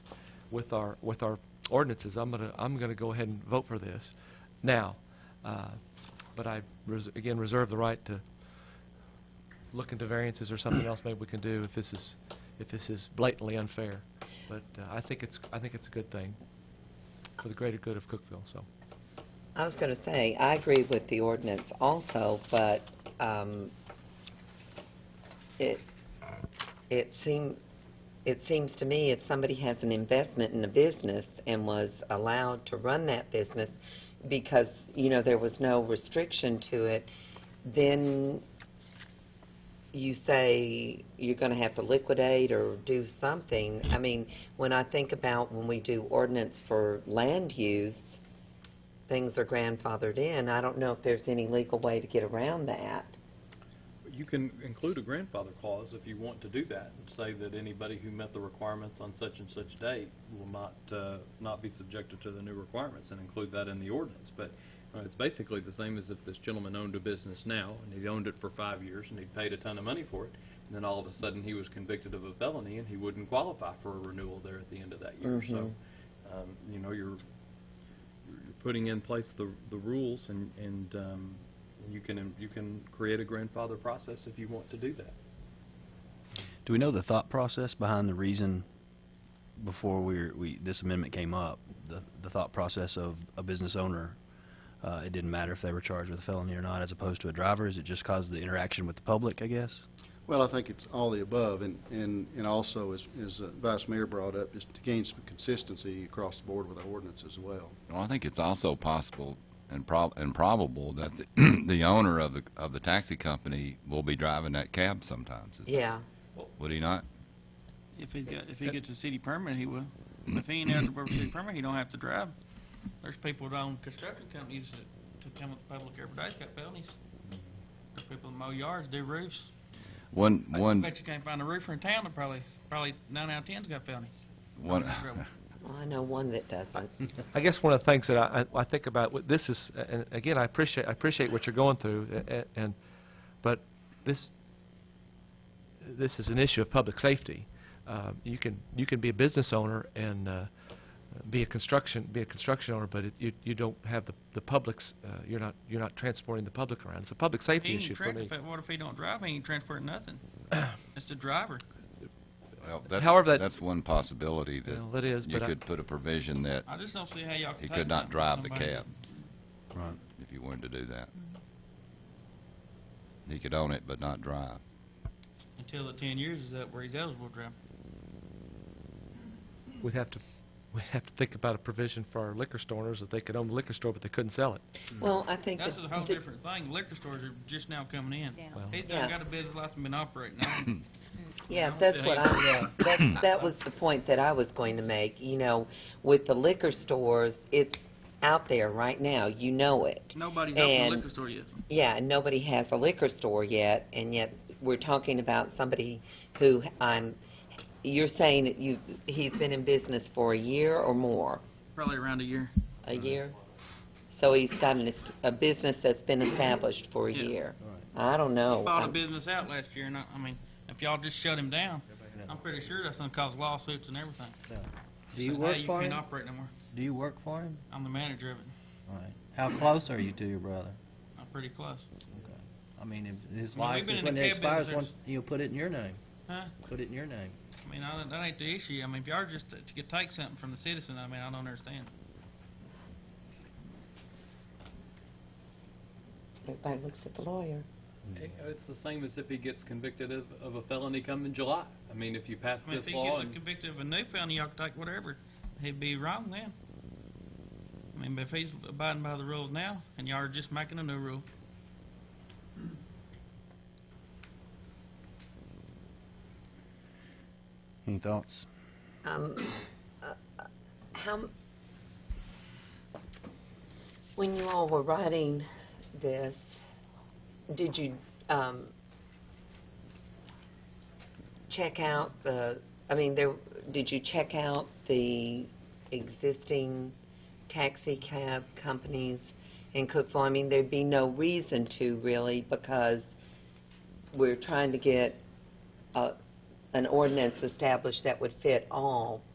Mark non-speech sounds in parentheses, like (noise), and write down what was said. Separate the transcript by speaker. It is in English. Speaker 1: with our, with our ordinances. I'm going to, I'm going to go ahead and vote for this now. Uh, But I, res- again, reserve the right to look into variances or something else maybe we can do if this is, if this is blatantly unfair. But uh, I think it's, I think it's a good thing for the greater good of Cookville, so.
Speaker 2: I was going to say, I agree with the ordinance also, but um, it, it seem, it seems to me if somebody has an investment in a business and was allowed to run that business because, you know, there was no restriction to it, then you say you're going to have to liquidate or do something. I mean, when I think about when we do ordinance for land use, things are grandfathered in. I don't know if there's any legal way to get around that.
Speaker 3: You can include a grandfather clause if you want to do that, and say that anybody who met the requirements on such and such date will not, uh, not be subjected to the new requirements, and include that in the ordinance. But uh, it's basically the same as if this gentleman owned a business now, and he'd owned it for five years, and he'd paid a ton of money for it, and then all of a sudden, he was convicted of a felony, and he wouldn't qualify for a renewal there at the end of that year. So, um, you know, you're, you're putting in place the, the rules and, and um, you can, you can create a grandfather process if you want to do that.
Speaker 4: Do we know the thought process behind the reason before we, were- we this amendment came up? The, the thought process of a business owner, uh, it didn't matter if they were charged with a felony or not, as opposed to a driver. Is it just cause of the interaction with the public? I guess.
Speaker 5: Well, I think it's all the above, and, and and also, as, as uh, Vice Mayor brought up, is to gain some consistency across the board with our ordinance as well.
Speaker 6: Well, I think it's also possible and prob- and probable that the, (clears throat) the owner of the, of the taxi company will be driving that cab sometimes, is-
Speaker 2: Yeah.
Speaker 6: would he not?
Speaker 7: If he's got, if he gets a city permit, he will. If he ain't out the city permit, he don't have to drive. There's people that own construction companies that, to come with the public every day, it's got felonies. There's people that mow yards, do roofs.
Speaker 6: One,
Speaker 7: I
Speaker 6: one,
Speaker 7: Bet you can't find a roofer in town that probably, probably nine out of ten's got felony.
Speaker 6: one,
Speaker 2: Well, I know one that doesn't.
Speaker 1: I guess one of the things that I, I I think about, with this is, and again, I appreciate, I appreciate what you're going through, a- a- and, but this, this is an issue of public safety. Uh, You can, you can be a business owner and uh, be a construction, be a construction owner, but it- you, you don't have the, the public's, uh, you're not, you're not transporting the public around. It's a public
Speaker 7: He
Speaker 1: safety issue
Speaker 7: ain't
Speaker 1: for me.
Speaker 7: transporting, what if he don't drive, he ain't
Speaker 6: (clears throat)
Speaker 7: transporting nothing. It's the driver.
Speaker 6: (laughs) well, that's,
Speaker 1: However, that-
Speaker 6: that's one possibility
Speaker 1: Well,
Speaker 6: that
Speaker 1: That is,
Speaker 6: you
Speaker 1: but I,
Speaker 6: could put a provision that
Speaker 7: I just don't see how y'all can
Speaker 6: he
Speaker 7: take
Speaker 6: could not
Speaker 7: something from
Speaker 6: drive the
Speaker 7: somebody.
Speaker 6: cab,
Speaker 4: Right.
Speaker 6: if you wanted to do that. He could own it but not drive.
Speaker 7: Until the ten years is up where he's eligible to drive.
Speaker 1: we'd have to, (laughs) we'd have to think about a provision for our liquor store owners, that they could own the liquor store, but they couldn't sell it.
Speaker 2: Well, I think
Speaker 7: That's
Speaker 2: that
Speaker 7: a whole
Speaker 2: th-
Speaker 7: different thing. Liquor stores are just now coming in.
Speaker 1: Well-
Speaker 7: He's
Speaker 2: Yeah.
Speaker 7: done got a business license, been operating. I don't-
Speaker 2: Yeah,
Speaker 7: Well,
Speaker 2: that's what
Speaker 7: they-
Speaker 2: I, that, that was the point that I was going to make, you know, with the liquor stores, it's out there right now, you know it.
Speaker 7: Nobody's opened a
Speaker 2: And-
Speaker 7: liquor store yet.
Speaker 2: Yeah, and nobody has a liquor store yet, and yet we're talking about somebody who, I'm, you're saying that you, he's been in business for a year or more?
Speaker 7: Probably around a year.
Speaker 2: A year? So he's got an est- a business that's been established for a
Speaker 7: Yeah.
Speaker 2: year? I don't know.
Speaker 7: Bought a
Speaker 2: I'm-
Speaker 7: business out last year, and I, I mean, if y'all just shut him down, I'm pretty sure that's gonna cause lawsuits and everything.
Speaker 8: Do you
Speaker 7: Say,
Speaker 8: work
Speaker 7: "Hey,
Speaker 8: for
Speaker 7: You
Speaker 8: him?
Speaker 7: can't operate no more.
Speaker 8: Do you work for him?
Speaker 7: I'm the manager of it.
Speaker 8: All right. How close are you to your brother?
Speaker 7: I'm pretty close.
Speaker 8: I mean, if his
Speaker 7: I mean, we've been
Speaker 8: license,
Speaker 7: in
Speaker 8: when
Speaker 7: the
Speaker 8: it
Speaker 7: cab
Speaker 8: expires,
Speaker 7: business
Speaker 8: one, you'll put it in your name.
Speaker 7: Huh?
Speaker 8: Put it in your name.
Speaker 7: I mean, I, don't- that ain't the issue. I mean, if y'all just to to take something from the citizen, I mean, I don't understand.
Speaker 2: Everybody looks at the lawyer.
Speaker 4: Mm-hmm.
Speaker 3: It's the same as if he gets convicted of, of a felony come in July. I mean, if you pass
Speaker 7: I mean, if
Speaker 3: this
Speaker 7: he
Speaker 3: law
Speaker 7: gets
Speaker 3: and,
Speaker 7: convicted of a new felony, y'all can take whatever. He'd be wrong then. I mean, but if he's abiding by the rules now, and y'all are just making a new rule,
Speaker 4: Any thoughts?
Speaker 2: Um, uh, uh, how, m- when you all were writing this, did you, um, check out the, I mean, there, did you check out the existing taxi cab companies in Cookville? I mean, there'd be no reason to really, because we're trying to get, uh, an ordinance established that would fit all